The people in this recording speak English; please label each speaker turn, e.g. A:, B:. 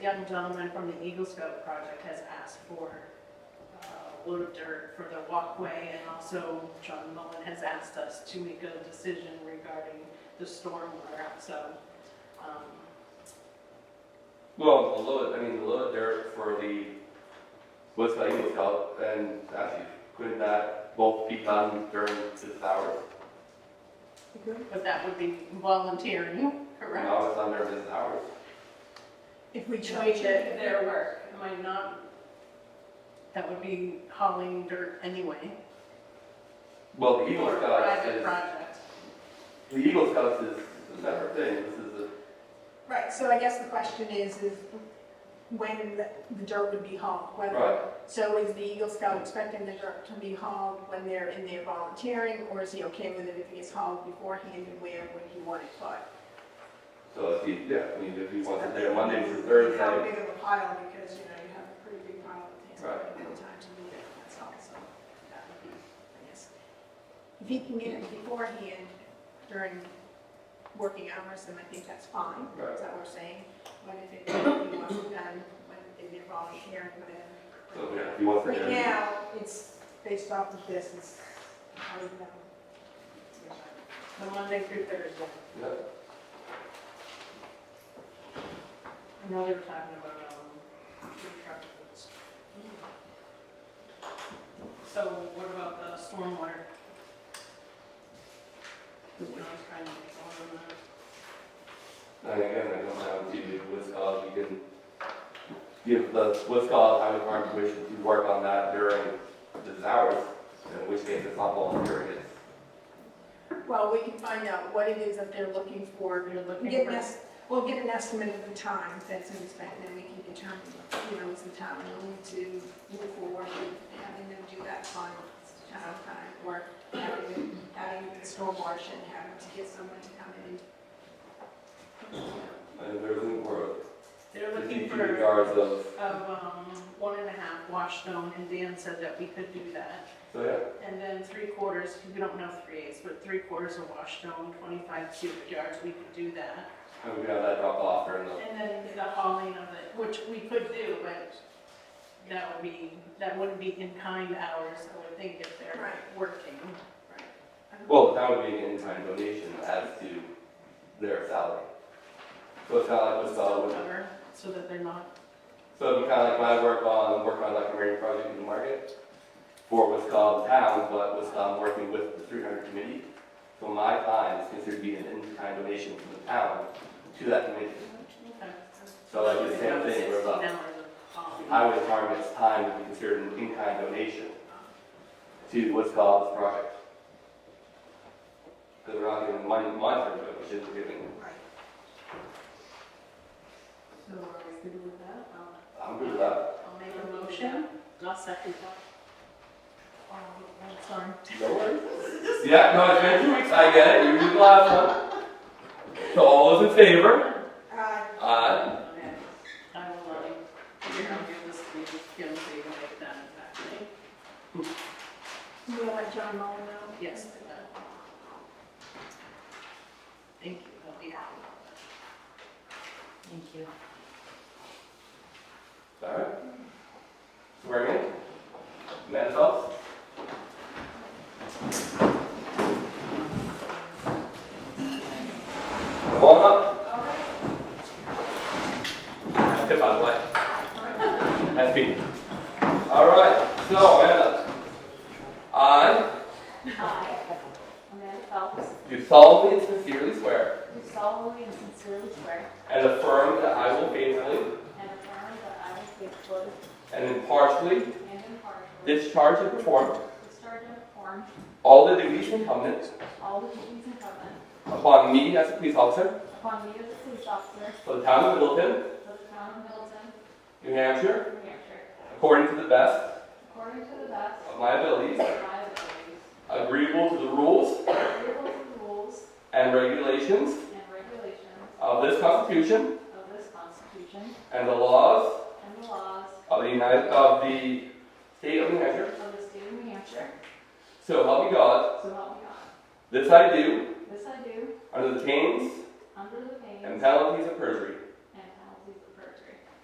A: young gentleman from the Eagle Scout project has asked for uh, load of dirt for the walkway, and also John Mullen has asked us to make a decision regarding the stormwater, so, um,
B: Well, the load, I mean, the load dirt for the, with the Eagle Scout and Matthew, couldn't that both be done during this hour?
A: but that would be volunteering, correct?
B: Now it's under this hour.
A: If we change it, their work, am I not? That would be hauling dirt anyway.
B: Well, the Eagle
A: for a
B: Scouts
A: private
B: is,
A: project.
B: the Eagle Scouts is a separate thing, this is a,
C: Right, so I guess the question is, is when the the dirt would be hauled, whether,
B: right,
C: so is the Eagle Scout expecting the dirt to be hauled when they're in there volunteering, or is he okay with it if it gets hauled beforehand, and where would he want it put?
B: so if he, yeah, I mean, if he wants it there Monday through Thursday,
C: How big of a pile, because, you know, you have a pretty big pile that takes a
B: Right.
C: little time to move it, that's all, so that would be, I guess. If he can get it beforehand during working hours, then I think that's fine,
B: Right.
C: is that what we're saying? But if it, if he wants it done, when they involve sharing,
B: so
C: whatever.
B: yeah, if he wants it
C: Right
B: there.
C: now, it's based off of this, it's, I don't know.
A: The Monday through Thursday.
B: yeah.
A: I know they were talking about, um, food truck rules. So what about the stormwater? You know, I was trying to make all of that.
B: And again, I don't have to do with, uh, we can give the, uh, what's called highway department permission to work on that during the hours, in which case it's not volunteer, it's,
C: Well, we can find out what it is that they're looking for,
A: You're looking
C: Get
A: for-
C: an es, we'll get an estimate of the time that's in effect, and we can determine, you know, is the town willing to move forward with having them do that on town time, or having, it- having the storm wash and having to get someone to come in.
B: and there's an order.
A: They're looking
B: In
A: for,
B: regards of,
A: of, um, one and a half wash stone, and Dan said that we could do that.
B: so yeah,
A: And then three quarters, we don't know three eighths, but three quarters of wash stone, twenty-five cubic yards, we could do that.
B: and we have that drop off during the,
A: And then the hauling of it, which we could do, but that would be, that wouldn't be in-kind hours, I would think, if they're
C: Right.
A: working.
B: well, that would be an in-time donation as to their salary. So it's kind of like, what's,
A: Still
B: uh,
A: cover, so that they're not,
B: So it'd be kind of like when I work on, work on like a marine project in the market for what's called town, but what's called working with the three hundred committee. So my time is considered to be an in-kind donation from the town to that committee.
A: okay.
B: So like the same thing, we're about-
A: Sixteen hours of hauling.
B: Highway department's time would be considered an in-kind donation to what's called this project. Because we're not giving money, money for it, which is giving,
C: Right.
A: So are we good with that? I'll-
B: I'm good with that.
A: I'll make a motion. I'll second that. Oh, I'm sorry.
B: No worries. Yeah, no, it's been two weeks, I get it, you did the last one. So all those in favor?
C: Uh,
B: Aye.
A: Okay. I will, uh, you're gonna give this to me, Kim, so you can make that exactly.
C: we'll let John Mullen know.
A: Yes. do that. Thank you, I'll be happy about that.
D: Thank you.
B: Alright. Swear again. Manifest. Come on up. That's good, by the way. That's me. Alright, so, Amanda. I
D: Hi, Amanda Phelps,
B: do solemnly and sincerely swear
D: do solemnly and sincerely swear
B: and affirm that I will faithfully
D: and affirm that I will faithfully
B: and impartially
D: and impartially
B: discharge and perform
D: discharge and perform
B: all the duties incumbent
D: all the duties incumbent
B: upon me as a police officer
D: upon me as a police officer
B: For the town of Middleton,
D: for the town of Middleton,
B: New Hampshire,
D: New Hampshire,
B: according to the best
D: according to the best
B: of my abilities,
D: of my abilities,
B: agreeable to the rules
D: agreeable to the rules
B: and regulations
D: and regulations
B: of this Constitution
D: of this Constitution
B: and the laws
D: and the laws
B: of the United, of the state of New Hampshire.
D: of the state of New Hampshire,
B: So help me God.
D: so help me God.
B: This I do
D: This I do
B: under the pains
D: under the pain
B: and
D: and
B: penalties of perjury.